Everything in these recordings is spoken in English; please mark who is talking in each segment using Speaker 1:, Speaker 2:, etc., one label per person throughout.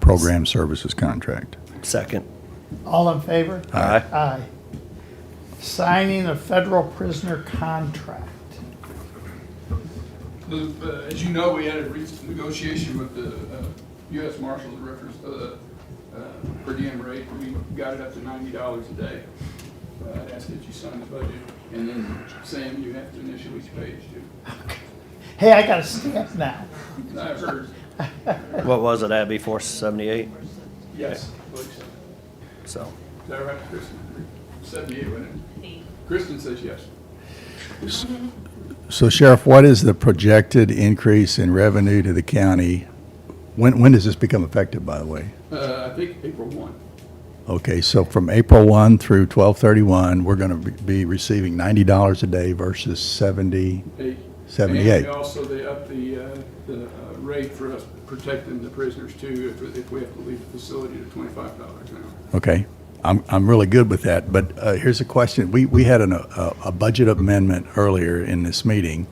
Speaker 1: program services contract.
Speaker 2: Second.
Speaker 3: All in favor?
Speaker 2: Aye.
Speaker 3: Aye. Signing a federal prisoner contract.
Speaker 4: The- uh, As you know, we had a recent negotiation with the uh, U.S. Marshals and Records, uh, uh, per diem rate. We got it up to ninety dollars a day. Uh, I'd ask that you sign the budget, and then Sam, you have to initial each page too.
Speaker 3: Hey, I got a stamp now.
Speaker 4: I heard,
Speaker 2: What was it at before seventy-eight?
Speaker 4: yes, I believe so.
Speaker 2: So,
Speaker 4: Is that right, Kristen? Seventy-eight, wasn't it? Kristen says yes.
Speaker 1: So Sheriff, what is the projected increase in revenue to the county? When, when does this become effective, by the way?
Speaker 4: Uh, I think April one.
Speaker 1: Okay, so from April 1 through 12/31, we're going to be receiving $90 a day versus 70.
Speaker 4: Eight.
Speaker 1: 78.
Speaker 4: And also, they up the, uh, the uh, rate for us protecting the prisoners too, if, if we have to leave the facility to twenty-five dollars an hour.
Speaker 1: Okay, I'm, I'm really good with that, but uh, here's a question. We, we had an, a, a budget amendment earlier in this meeting.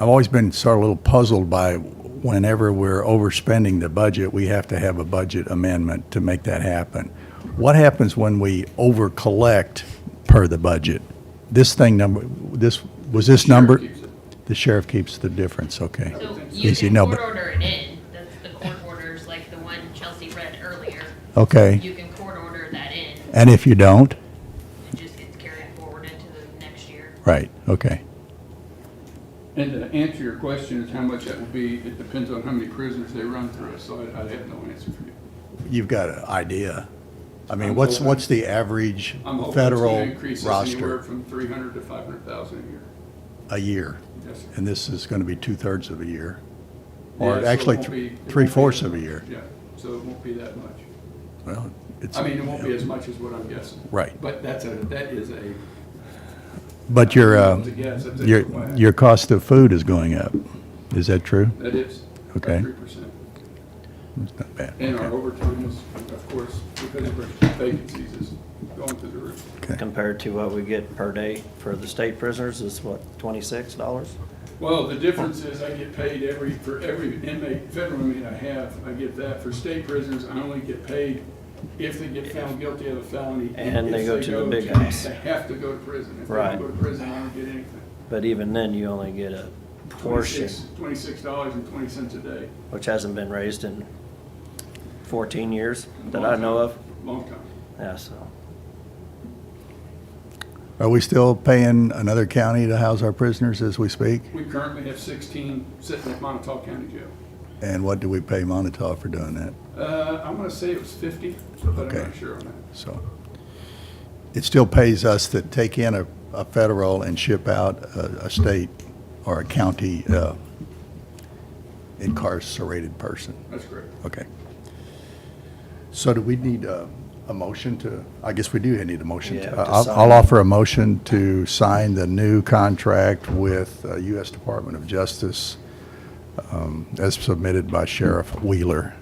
Speaker 1: I've always been sort of a little puzzled by whenever we're overspending the budget, we have to have a budget amendment to make that happen. What happens when we over-collect per the budget? This thing number, this, was this number?
Speaker 4: Sheriff keeps it.
Speaker 1: The sheriff keeps the difference, okay.
Speaker 5: So you
Speaker 1: Yes, you
Speaker 5: can
Speaker 1: know,
Speaker 5: court
Speaker 1: but-
Speaker 5: order it in, that's the court orders, like the one Chelsea read earlier.
Speaker 1: Okay,
Speaker 5: You can court order that in,
Speaker 1: and if you don't?
Speaker 5: it just gets carried forward into the next year.
Speaker 1: Right, okay,
Speaker 4: And to answer your question is how much that will be, it depends on how many prisoners they run through, so I, I have no answer for you.
Speaker 1: you've got an idea. I mean,
Speaker 4: I'm
Speaker 1: what's,
Speaker 4: hoping-
Speaker 1: what's the average
Speaker 4: I'm hoping it's gonna
Speaker 1: federal
Speaker 4: increase this anywhere
Speaker 1: roster
Speaker 4: from three hundred to five hundred thousand a year.
Speaker 1: a year?
Speaker 4: Yes, sir.
Speaker 1: And this is going to be two-thirds of a year,
Speaker 4: Yeah,
Speaker 1: or
Speaker 4: so it
Speaker 1: actually
Speaker 4: won't be- it
Speaker 1: thr-
Speaker 4: won't be-
Speaker 1: three-fourths of a year.
Speaker 4: Yeah, so it won't be that much.
Speaker 1: Well, it's.
Speaker 4: I mean, it won't be as much as what I'm guessing.
Speaker 1: Right.
Speaker 4: But that's a, that is a,
Speaker 1: But your, uh,
Speaker 4: It's a guess. It's a-
Speaker 1: your, your cost of food is going up. Is that true?
Speaker 4: that is.
Speaker 1: Okay.
Speaker 4: Three percent.
Speaker 1: It's not bad.
Speaker 4: And our
Speaker 1: Okay.
Speaker 4: overtime is, of course, because of vacancies is going through the roof.
Speaker 2: compared to what we get per day for the state prisoners is what, twenty-six dollars?
Speaker 4: Well, the difference is I get paid every, for every inmate, federal inmate I have, I get that. For state prisoners, I only get paid if they get found guilty of a felony.
Speaker 2: And they
Speaker 4: if
Speaker 2: go to the big
Speaker 4: to-
Speaker 2: house.
Speaker 4: They have to go to prison. If they
Speaker 2: Right.
Speaker 4: don't go to prison, I don't get anything.
Speaker 2: But even then, you only get a portion,
Speaker 4: Twenty-six dollars and twenty cents a day.
Speaker 2: which hasn't been raised in fourteen years that I know of.
Speaker 4: Long time.
Speaker 2: Yeah, so,
Speaker 1: Are we still paying another county to house our prisoners as we speak?
Speaker 4: We currently have sixteen sitting at Montauk County Jail.
Speaker 1: And what do we pay Montauk for doing that?
Speaker 4: Uh, I'm gonna say it was fifty, but I'm
Speaker 1: Okay.
Speaker 4: not sure on that.
Speaker 1: So it still pays us to take in a, a federal and ship out a, a state or a county uh, incarcerated person.
Speaker 4: That's correct.
Speaker 1: Okay. So do we need a, a motion to, I guess we do need a motion.
Speaker 2: Yeah,
Speaker 1: to-
Speaker 2: to
Speaker 1: I'll,
Speaker 2: sign.
Speaker 1: I'll offer a motion to sign the new contract with uh, U.S. Department of Justice um, as submitted by Sheriff Wheeler.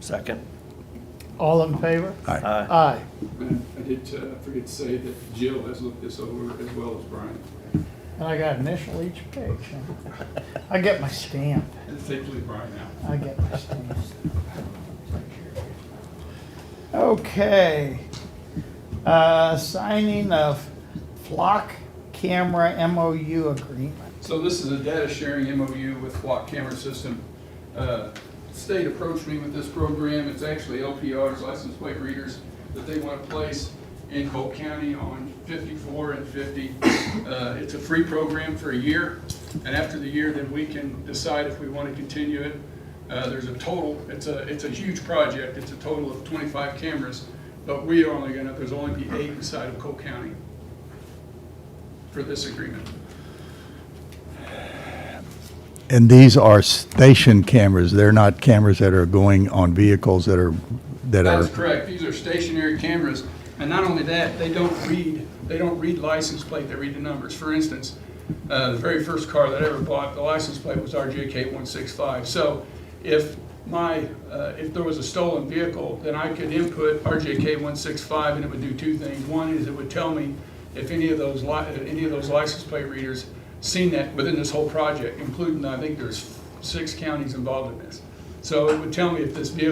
Speaker 2: second,
Speaker 3: All in favor?
Speaker 1: Aye.
Speaker 2: aye.
Speaker 3: Aye.
Speaker 4: And I did, uh, forget to say that Jill has looked this over as well as Brian.
Speaker 3: And I got initial each page. I get my stamp.
Speaker 4: And particularly Brian now.
Speaker 3: I get my stamp. Okay. Uh, Signing of flock camera MOU agreement.
Speaker 4: So this is a data sharing MOU with Flock Camera System. Uh, State approached me with this program. It's actually LPRs, license plate readers, that they want to place in Polk County on 54 and 50. Uh, It's a free program for a year, and after the year, then we can decide if we want to continue it. Uh, There's a total, it's a, it's a huge project. It's a total of 25 cameras, but we are only going to, there's only be eight inside of Polk County for this agreement.
Speaker 1: And these are station cameras. They're not cameras that are going on vehicles that are, that are.
Speaker 4: That's correct. These are stationary cameras. And not only that, they don't read, they don't read license plate, they read the numbers. For instance, uh, the very first car that I ever bought, the license plate was RJK 165. So if my, uh, if there was a stolen vehicle, then I could input RJK 165 and it would do two things. One is it would tell me if any of those, li- if any of those license plate readers seen that within this whole project, including, I think there's six counties involved in this. So it would tell me if this vehicle